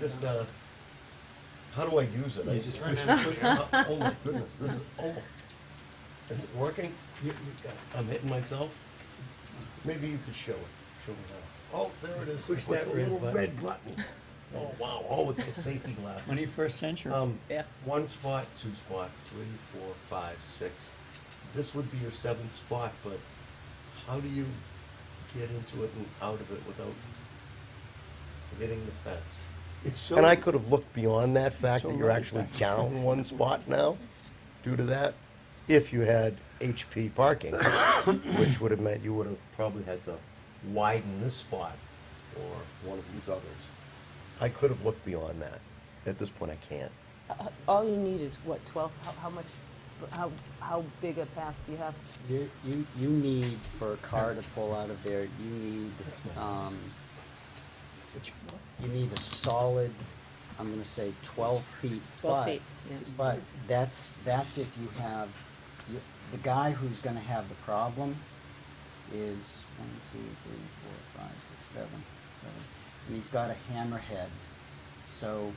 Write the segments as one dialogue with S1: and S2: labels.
S1: just, uh, how do I use it? I
S2: You
S1: just
S2: just
S1: push
S2: push
S1: it.
S2: the button.
S1: Oh my goodness, this is, oh, is it working?
S2: You- you've got it.
S1: I'm hitting myself? Maybe you could show it, show me how. Oh, there it is. I
S2: Push that
S1: the
S2: red
S1: little
S2: button.
S1: Red button. Oh, wow, oh, with the safety glasses.
S3: Twenty-first century.
S1: Um,
S3: Yeah.
S1: one spot, two spots, three, four, five, six. This would be your seventh spot, but how do you get into it and out of it without hitting the fence?
S2: It's so.
S1: And I could have looked beyond that fact
S3: So
S1: that you're
S3: right
S1: actually
S3: back.
S1: down one spot now due to that, if you had HP parking, which would have meant you would have probably had to widen this spot or one of these others. I could have looked beyond that. At this point, I can't.
S4: Uh, All you need is what, 12, how, how much, how, how big a path do you have?
S5: You, you, you need for a car to pull out of there, you need, um, you need a solid, I'm gonna say twelve feet,
S4: 12
S5: but,
S4: feet, yeah.
S5: but that's, that's if you have, you- the guy who's gonna have the problem is one, two, three, four, five, six, seven, seven, and he's got a hammerhead. So,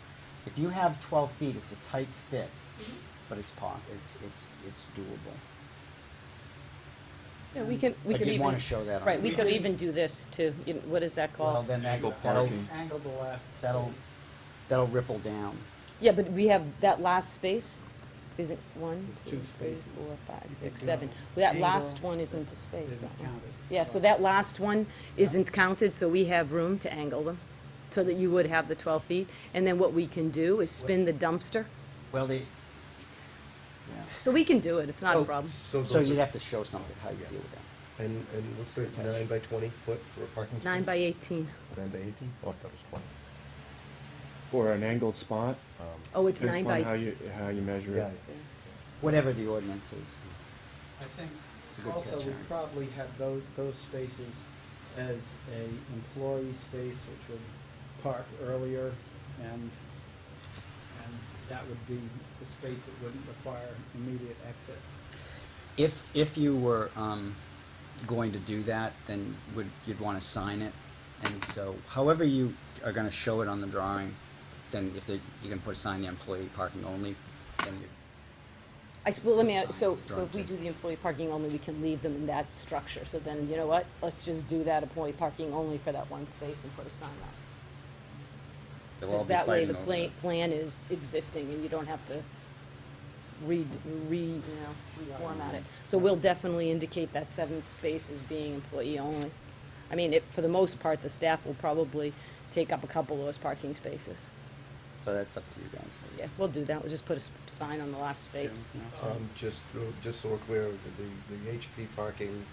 S5: if you have twelve feet, it's a tight fit,
S4: Mm-hmm.
S5: but it's po- it's, it's, it's doable.
S4: Yeah, we can, we
S5: I
S4: could even.
S5: did wanna show that on
S4: Right, we
S5: the-
S4: could even do this too, you know, what is that
S5: Well,
S4: called?
S5: then that,
S3: Angle
S5: that'll,
S3: parking.
S6: Angle the last.
S5: that'll,
S6: space.
S5: that'll ripple down.
S4: Yeah, but we have, that last space isn't one,
S6: It's
S4: two,
S6: two
S4: three,
S6: spaces.
S4: four, five,
S6: You could
S4: six, seven.
S6: do
S4: Well, That
S6: angle
S4: last one isn't a space,
S6: isn't
S4: that one.
S6: counted.
S4: Yeah, so that last one isn't counted, so we have room to angle them, so that you would have the twelve feet. And then what we can do is spin the dumpster,
S5: Well, they,
S4: so we can do it, it's not a
S5: So-
S4: problem.
S5: so
S1: those
S5: you'd
S1: are-
S5: have to show something, how you deal with that.
S1: And, and what's it, nine by twenty foot for a parking space?
S4: Nine by eighteen.
S1: Nine by eighteen? Oh, I thought it was twenty.
S7: For an angled spot?
S4: Oh, it's
S7: Depends
S4: nine
S7: upon How
S4: by,
S7: you, how you measure
S1: Yeah,
S7: it.
S5: Whatever the ordinance is.
S6: I think
S5: It's a good
S6: also
S5: catch,
S6: we
S5: Aaron.
S6: probably have those, those spaces as a employee space, which would park earlier and, and that would be the space that wouldn't require immediate exit.
S5: If, if you were, um, going to do that, then would, you'd wanna sign it. And so, however you are gonna show it on the drawing, then if they, you can put a sign, the employee parking only, then you,
S4: I s- well, let me, uh,
S5: Sign,
S4: so, so if
S5: drawing
S4: we
S5: thing.
S4: do the employee parking only, we can leave them in that structure. So then, you know what, let's just do that employee parking only for that one space and put a sign up.
S5: they'll all
S4: Because
S5: be
S4: that way
S5: fighting
S4: the
S5: over
S4: plan,
S5: it.
S4: plan is existing and you don't have to read, re, you know, reformat it. So we'll definitely indicate that seventh space as being employee only. I mean, it, for the most part, the staff will probably take up a couple of those parking spaces.
S5: So that's up to you guys.
S4: Yeah, we'll do that, we'll just put a s- sign on the last space.
S1: um, just, uh, just so we're clear, the, the HP parking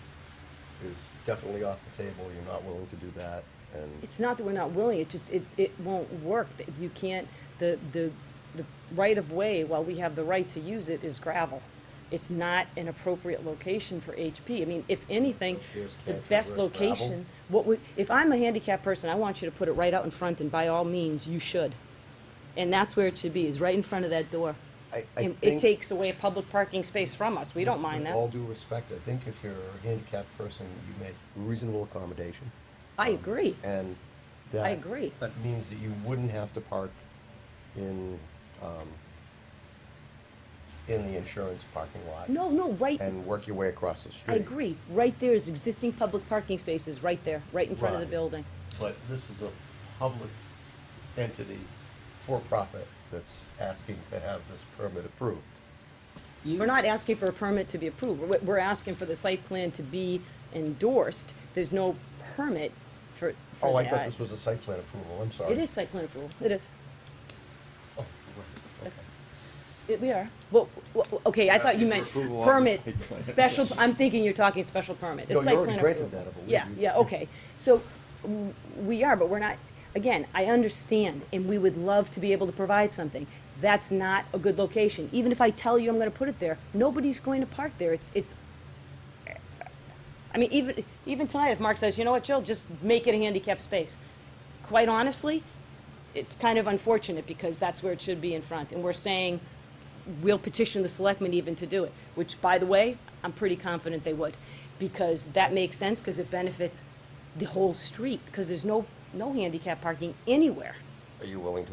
S1: is definitely off the table, you're not willing to do that, and,
S4: It's not that we're not willing, it just, it, it won't work, That you can't, the, the, the right of way, while we have the right to use it, is gravel. It's not an appropriate location for HP, I mean, if anything,
S1: Shares
S4: the
S1: can't
S4: best
S1: traverse gravel.
S4: location, what would, if I'm a handicapped person, I want you to put it right out in front, and by all means, you should. And that's where it should be, is right in front of that door.
S1: I, I
S4: And
S1: think.
S4: It takes away a public parking space from us, we don't mind
S1: With all
S4: that,
S1: due respect, I think if you're a handicapped person, you make reasonable accommodation,
S4: I agree,
S1: and that.
S4: I agree.
S1: That means that you wouldn't have to park in, um, in the insurance parking lot.
S4: No, no, right,
S1: And work your way across the street.
S4: I agree. Right there is existing public parking spaces, right there, right in front of the
S1: Right.
S4: building.
S1: But this is a public entity, for-profit, that's asking to have this permit approved.
S5: You-
S4: We're not asking for a permit to be approved. We're, we're asking for the site plan to be endorsed. There's no permit for, for
S1: Oh, I
S4: that.
S1: thought this was a site plan approval, I'm sorry.
S4: It is site plan approval, it is.
S1: Oh, right, okay.
S4: That's- it- We are. Well, w- w- okay, I thought you
S7: Asking
S4: meant
S7: for approval of the
S4: permit,
S7: site plan.
S4: special, I'm thinking you're talking special permit. It's
S1: No, you
S4: site
S1: already
S4: plan
S1: granted
S4: approval.
S1: that, I believe.
S4: Yeah,
S1: You-
S4: yeah, okay. So w- we are, but we're not, again, I understand, and we would love to be able to provide something. That's not a good location. Even if I tell you I'm gonna put it there, nobody's going to park there. It's, it's, I mean, even, even tonight, if Mark says, you know what, Jill, just make it a handicap space. Quite honestly, it's kind of unfortunate because that's where it should be in front. And we're saying, we'll petition the selectmen even to do it, which, by the way, I'm pretty confident they would, because that makes sense, because it benefits the whole street, because there's no, no handicap parking anywhere.
S1: Are you willing to